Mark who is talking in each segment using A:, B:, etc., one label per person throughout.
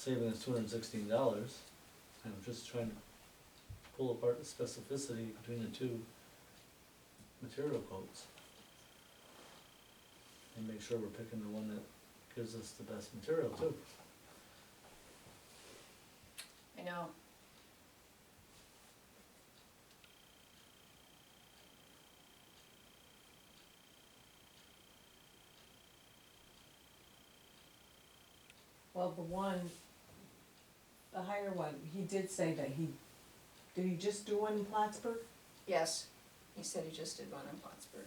A: saving us two hundred and sixteen dollars. I'm just trying to pull apart the specificity between the two material quotes. And make sure we're picking the one that gives us the best material too.
B: I know.
C: Well, the one, the higher one, he did say that he, did he just do one in Plattsburgh?
B: Yes, he said he just did one in Plattsburgh.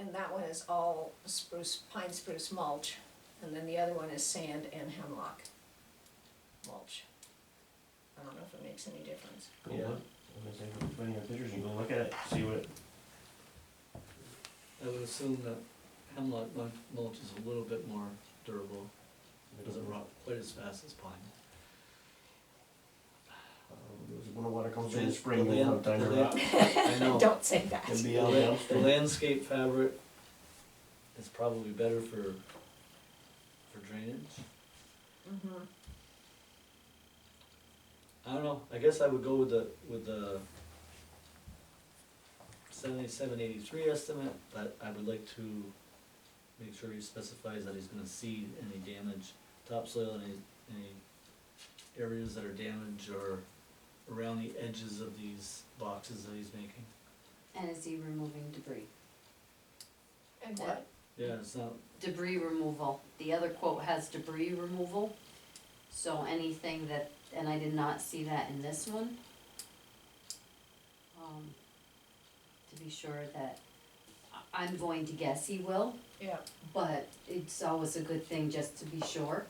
B: And that one is all spruce, pine spruce mulch, and then the other one is sand and hemlock mulch. I don't know if it makes any difference.
D: Go
A: Yeah.
D: look, I'm gonna say, put in your pictures and go look at it, see what, it-
A: I would assume that hemlock mul- mulch is a little bit more durable, it doesn't rot quite as fast as pine.
D: um, when the water comes through in the
A: The
D: spring, they
A: land-
D: have time to
A: the
D: rot.
A: land- I know.
B: Don't say that.
D: It'd be
A: The
D: out
A: la-
D: downstream.
A: The landscape fabric is probably better for, for drainage.
B: Mhm.
A: I don't know, I guess I would go with the, with the seventy-seven eighty-three estimate, but I would like to make sure he specifies that he's gonna seed any damage, topsoil, any, any areas that are damaged or around the edges of these boxes that he's making.
E: And is he removing debris?
B: And what?
A: Yeah, it's not,
E: Debris removal, the other quote has debris removal, so anything that, and I did not see that in this one. Um, To be sure that, I- I'm going to guess he will,
B: Yeah,
E: but it's always a good thing just to be sure.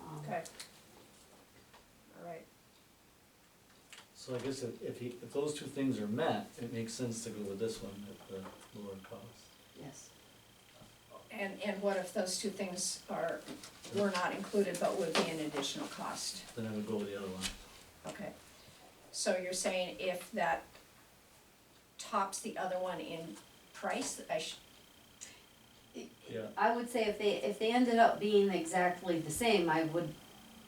E: Um,
B: okay. All right,
A: so I guess if, if he, if those two things are met, it makes sense to go with this one at the lower cost.
E: Yes,
B: and, and what if those two things are, were not included but would be an additional cost?
A: Then I would go with the other one.
B: Okay, so you're saying if that tops the other one in price, I should,
A: Yeah,
E: I would say if they, if they ended up being exactly the same, I would,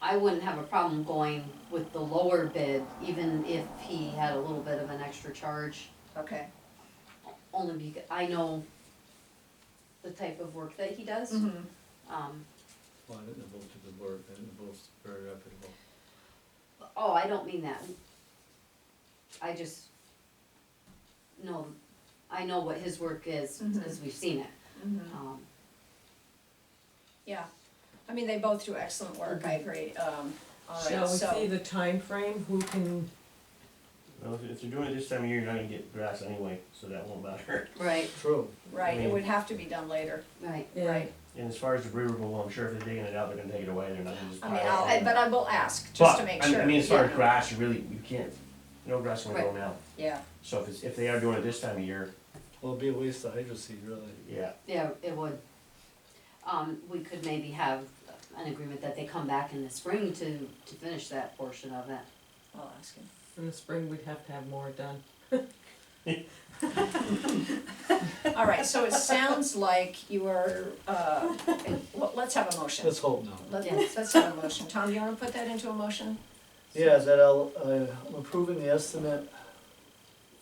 E: I wouldn't have a problem going with the lower bid, even if he had a little bit of an extra charge.
B: okay.
E: Only because I know the type of work that he does.
B: Mm-hmm.
C: Mm-hmm.
E: Um,
A: well, I think they're both did good work, I think they're both very reputable.
E: oh, I don't mean that. I just know, I know what his work is because we've seen it.
B: Mhm.
E: Um,
B: Yeah, I mean, they both do excellent work, I agree, um, all right,
C: Mm-hmm. Shall we
B: so,
C: see the time frame? who can,
D: Well, if- if you're doing it this time of year, you're not gonna get grass anyway, so that won't matter.
E: right,
A: True.
B: right, it would have to be done later,
E: right.
C: yeah,
B: right?
D: And as far as debris removal, I'm sure if they're digging it out, they're gonna take it away, they're not gonna just
B: I
D: pile
B: mean,
D: it.
B: I'll, I-
D: on.
B: but I will ask, just to
D: But,
B: make
D: I mean-
B: sure.
D: I mean, as far as
B: Yeah.
D: grass, you really, you can't, no grass will grow
E: Right.
D: now,
B: Yeah,
D: so if it's, if they are doing it this time of year,
A: Well, it'd be a waste of hydro seed, really.
D: yeah,
E: Yeah, it would. Um, we could maybe have an agreement that they come back in the spring to, to finish that portion of it.
B: I'll ask him.
C: in the spring, we'd have to have more done.
B: All right, so it sounds like you are, uh, well, let's have a motion.
A: Let's hope not.
B: Let-
E: Yeah.
B: Let's have a motion. Tom, do you wanna put that into a motion?
A: Yeah, that I'll, uh, I'm approving the estimate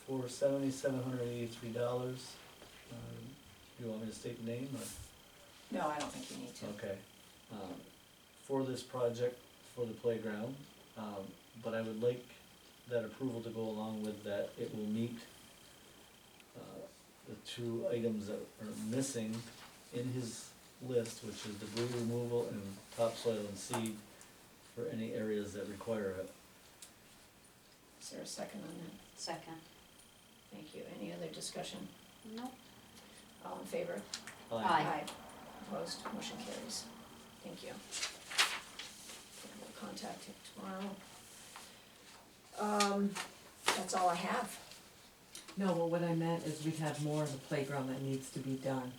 A: for seventy-seven hundred eighty-three dollars. Do you want me to state the name or?
B: No, I don't think you need to.
A: Okay. Um, For this project, for the playground, um, but I would like that approval to go along with that it will meet uh, the two items that are missing in his list, which is debris removal and topsoil and seed for any areas that require it.
B: Is there a second on that?
E: Second.
B: Thank you. Any other discussion?
E: Nope.
B: All in favor?
E: Aye.
B: Opposed, motion carries. Thank you. Okay, We'll contact him tomorrow. Um, that's all I have.
C: No, but what I meant is we'd have more of the playground that needs to be done,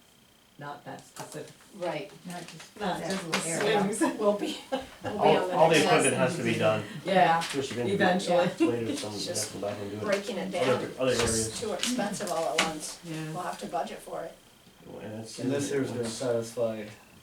C: not that specific,
E: Right,
F: Not just,
C: not
F: not
C: just
F: just
C: the
F: area.
C: swings,
B: We'll be, we'll be on
D: all,
B: the
D: all the
B: next
D: equipment has to be done,
C: yeah,
D: just eventually.
C: eventually,
D: Later, some,
B: It's
D: you have
B: just
D: to go back and do it.
B: breaking it
D: Other-
B: down.
D: Other
B: It's
D: areas.
B: just too expensive all at once.
C: yeah.
B: We'll have to budget for it.
D: and that's.
A: And this here's gonna satisfy